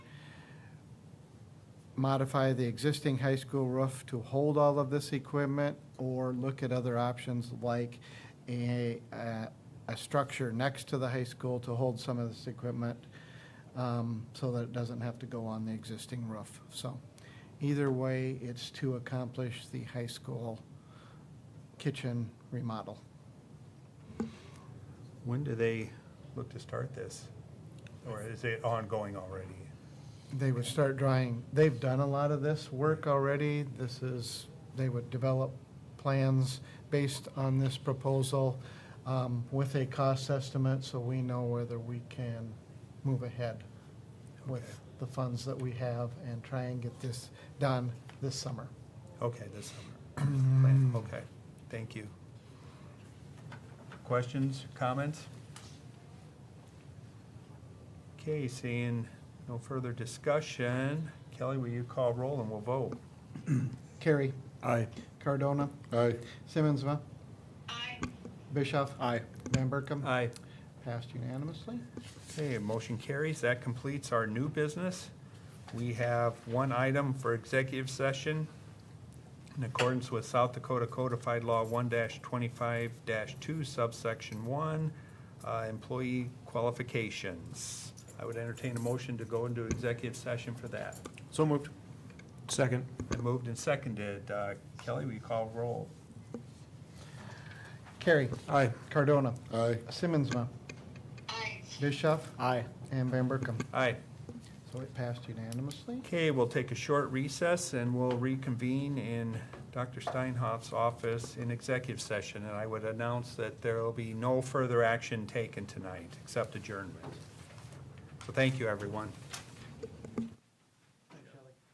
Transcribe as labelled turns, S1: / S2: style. S1: modify the existing high school roof to hold all of this equipment or look at other options like a, a, a structure next to the high school to hold some of this equipment um, so that it doesn't have to go on the existing roof. So either way, it's to accomplish the high school kitchen remodel.
S2: When do they look to start this? Or is it ongoing already?
S1: They would start drawing, they've done a lot of this work already. This is, they would develop plans based on this proposal um, with a cost estimate, so we know whether we can move ahead
S2: Okay.
S1: with the funds that we have and try and get this done this summer.
S2: Okay, this summer. Okay, thank you. Questions, comments? Okay, seeing no further discussion, Kelly, will you call roll and we'll vote?
S1: Carrie,
S3: Aye.
S1: Cardona,
S3: Aye.
S1: Simmonsma. Aye. Bischoff.
S3: Aye.
S1: Van Berkom.
S2: Aye.
S1: Passed unanimously.
S2: Okay, motion carries. That completes our new business. We have one item for executive session in accordance with South Dakota Codified Law one twenty-five two subsection one, uh, employee qualifications. I would entertain a motion to go into executive session for that.
S3: So moved. Second.
S2: Been moved and seconded. Uh, Kelly, will you call roll?
S1: Carrie,
S3: Aye.
S1: Cardona,
S3: Aye.
S1: Simmonsma. Aye. Bischoff.
S3: Aye.
S1: And Van Berkom.
S2: Aye.
S1: So it passed unanimously.
S2: Okay, we'll take a short recess and we'll reconvene in Dr. Steinhoff's office in executive session. And I would announce that there will be no further action taken tonight except adjournment. So thank you, everyone.